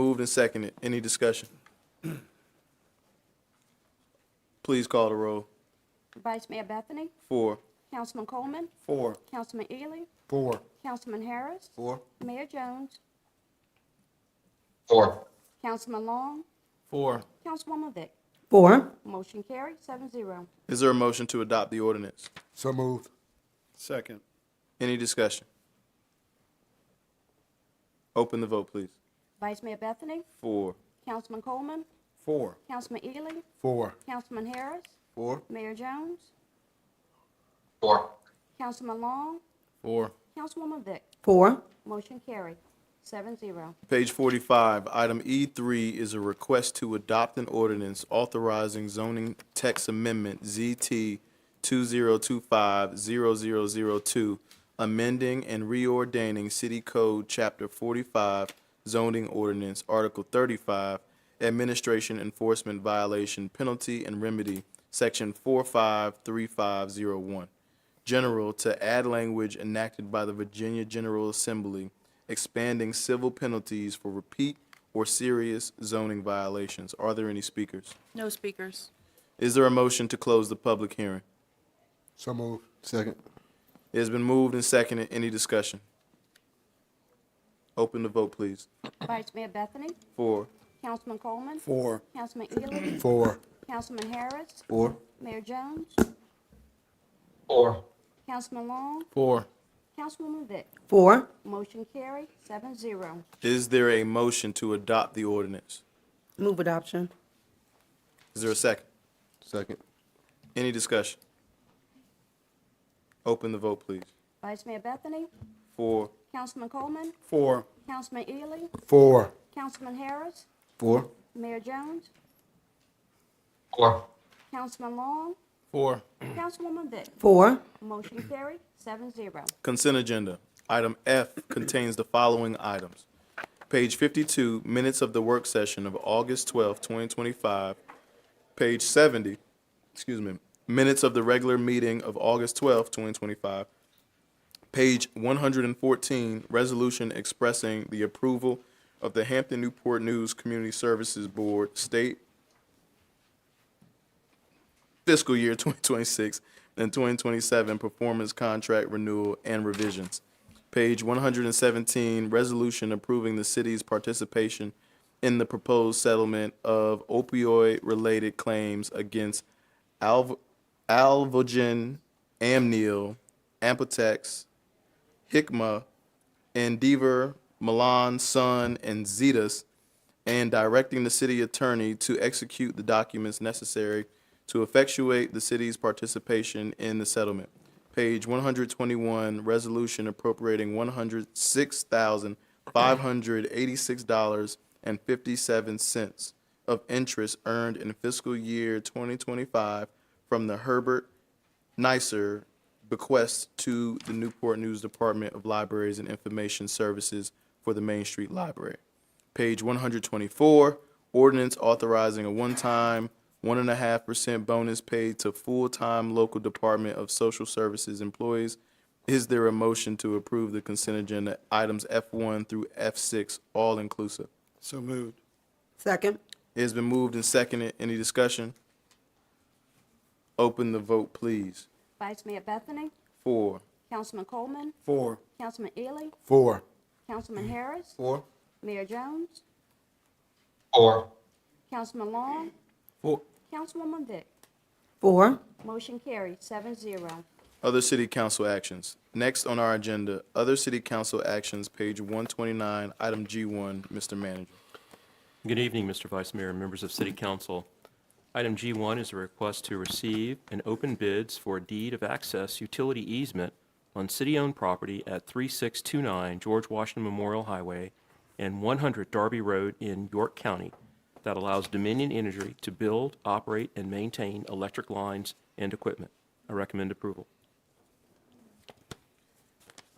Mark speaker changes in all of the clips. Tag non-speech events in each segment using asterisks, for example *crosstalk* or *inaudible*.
Speaker 1: Moved and seconded. Any discussion? *clears throat* Please call the roll.
Speaker 2: Vice Mayor Bethany,
Speaker 1: Four.
Speaker 2: Councilman Coleman,
Speaker 1: Four.
Speaker 2: Councilman Ely,
Speaker 1: Four.
Speaker 2: Councilman Harris,
Speaker 1: Four.
Speaker 2: Mayor Jones,
Speaker 3: Four.
Speaker 2: Councilman Long,
Speaker 1: Four.
Speaker 2: Councilwoman Vick.
Speaker 4: Four.
Speaker 2: Motion carried, seven zero.
Speaker 1: Is there a motion to adopt the ordinance?
Speaker 5: So moved.
Speaker 1: Second. Any discussion? Open the vote, please.
Speaker 2: Vice Mayor Bethany,
Speaker 1: Four.
Speaker 2: Councilman Coleman,
Speaker 5: Four.
Speaker 2: Councilman Ely,
Speaker 5: Four.
Speaker 2: Councilman Harris,
Speaker 5: Four.
Speaker 2: Mayor Jones,
Speaker 3: Four.
Speaker 2: Councilman Long,
Speaker 1: Four.
Speaker 2: Councilwoman Vick.
Speaker 4: Four.
Speaker 2: Motion carried, seven zero.
Speaker 1: Page 45, item E3 is a request to adopt an ordinance authorizing zoning text amendment ZT 2025-0002, amending and reordaining City Code Chapter 45 zoning ordinance, Article 35, administration enforcement violation penalty and remedy, Section 453501. General to add language enacted by the Virginia General Assembly expanding civil penalties for repeat or serious zoning violations. Are there any speakers?
Speaker 6: No speakers.
Speaker 1: Is there a motion to close the public hearing?
Speaker 5: So moved. Second.
Speaker 1: It has been moved and seconded. Any discussion? Open the vote, please.
Speaker 2: Vice Mayor Bethany,
Speaker 1: Four.
Speaker 2: Councilman Coleman,
Speaker 5: Four.
Speaker 2: Councilman Ely,
Speaker 5: Four.
Speaker 2: Councilman Harris,
Speaker 5: Four.
Speaker 2: Mayor Jones,
Speaker 3: Four.
Speaker 2: Councilman Long,
Speaker 1: Four.
Speaker 2: Councilwoman Vick.
Speaker 4: Four.
Speaker 2: Motion carried, seven zero.
Speaker 1: Is there a motion to adopt the ordinance?
Speaker 4: Move adoption.
Speaker 1: Is there a second?
Speaker 5: Second.
Speaker 1: Any discussion? Open the vote, please.
Speaker 2: Vice Mayor Bethany,
Speaker 1: Four.
Speaker 2: Councilman Coleman,
Speaker 5: Four.
Speaker 2: Councilman Ely,
Speaker 5: Four.
Speaker 2: Councilman Harris,
Speaker 5: Four.
Speaker 2: Mayor Jones,
Speaker 3: Four.
Speaker 2: Councilman Long,
Speaker 1: Four.
Speaker 2: Councilwoman Vick.
Speaker 4: Four.
Speaker 2: Motion carried, seven zero.
Speaker 1: Consent agenda. Item F contains the following items. Page 52, minutes of the work session of August 12, 2025. Page 70, excuse me, minutes of the regular meeting of August 12, 2025. Page 114, resolution expressing the approval of the Hampton Newport News Community Services Board State fiscal year *laughs* 2026 and 2027 performance contract renewal and revisions. Page 117, resolution approving the city's participation in the proposed settlement of opioid-related claims against Alv- Alvogen, Amneal, Ampotex, Hikma, Endeavor, Milan, Sun, and Zetas, and directing the city attorney to execute the documents necessary to effectuate the city's participation in the settlement. Page 121, resolution appropriating $106,586.57 of interest earned in fiscal year 2025 from the Herbert NICER bequest to the Newport News Department of Libraries and Information Services for the Main Street Library. Page 124, ordinance authorizing a one-time, 1.5% bonus paid to full-time local Department of Social Services employees. Is there a motion to approve the consent agenda items F1 through F6, all inclusive?
Speaker 5: So moved.
Speaker 4: Second.
Speaker 1: It has been moved and seconded. Any discussion? Open the vote, please.
Speaker 2: Vice Mayor Bethany,
Speaker 1: Four.
Speaker 2: Councilman Coleman,
Speaker 5: Four.
Speaker 2: Councilman Ely,
Speaker 5: Four.
Speaker 2: Councilman Harris,
Speaker 5: Four.
Speaker 2: Mayor Jones,
Speaker 3: Four.
Speaker 2: Councilman Long,
Speaker 1: Four.
Speaker 2: Councilwoman Vick.
Speaker 4: Four.
Speaker 2: Motion carried, seven zero.
Speaker 1: Other city council actions. Next on our agenda, other city council actions, page 129, item G1, Mr. Manager.
Speaker 7: Good evening, Mr. Vice Mayor and members of City Council. Item G1 is a request to receive and open bids for a deed of access utility easement on city-owned property at 3629 George Washington Memorial Highway and 100 Darby Road in York County that allows Dominion Energy to build, operate, and maintain electric lines and equipment. I recommend approval.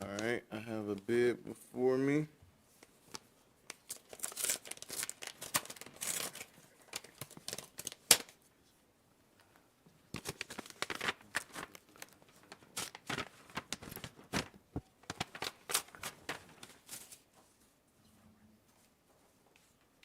Speaker 1: All right, I have a bid before me.